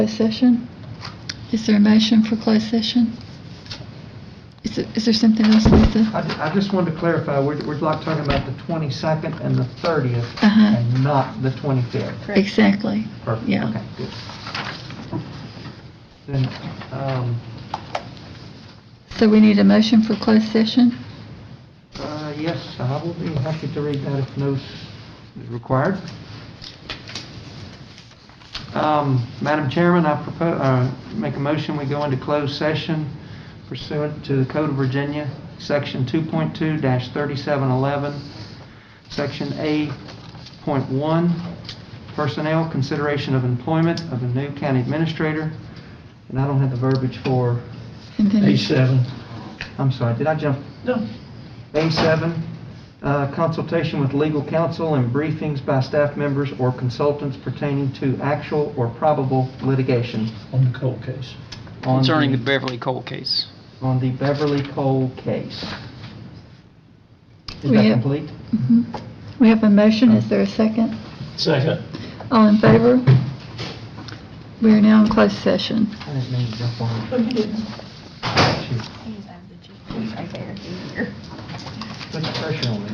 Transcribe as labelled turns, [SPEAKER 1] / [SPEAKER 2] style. [SPEAKER 1] Closed session? Is there a motion for closed session? Is there, is there something else, Lisa?
[SPEAKER 2] I ju- I just wanted to clarify, we're we're like talking about the 22nd and the 30th
[SPEAKER 1] Uh-huh.
[SPEAKER 2] and not the 25th.
[SPEAKER 1] Exactly.
[SPEAKER 2] Perfect.
[SPEAKER 1] Yeah.
[SPEAKER 2] Okay, good. Then, um,
[SPEAKER 1] So we need a motion for closed session?
[SPEAKER 2] uh, yes, I will be happy to read that if no s- is required. Um, Madam Chairman, I propose, uh, make a motion, we go into closed session pursuant to the Code of Virginia, Section 2.2-3711, Section A.1, Personnel Consideration of Employment of a New County Administrator. And I don't have the verbiage for
[SPEAKER 1] And then-
[SPEAKER 2] A7. I'm sorry, did I jump? No. A7, uh, consultation with legal counsel and briefings by staff members or consultants pertaining to actual or probable litigation.
[SPEAKER 3] on the cold case.
[SPEAKER 2] on
[SPEAKER 4] concerning the Beverly Cole case.
[SPEAKER 2] On the Beverly Cole case. Is
[SPEAKER 1] We
[SPEAKER 2] that
[SPEAKER 1] have-
[SPEAKER 2] complete?
[SPEAKER 1] Mhm. We have a motion, is there a second?
[SPEAKER 3] Second.
[SPEAKER 1] All in favor? We are now in closed session.
[SPEAKER 2] I didn't mean to jump on. you. Shoot,
[SPEAKER 5] He's out of the G. He's right there.
[SPEAKER 2] Put the pressure on me.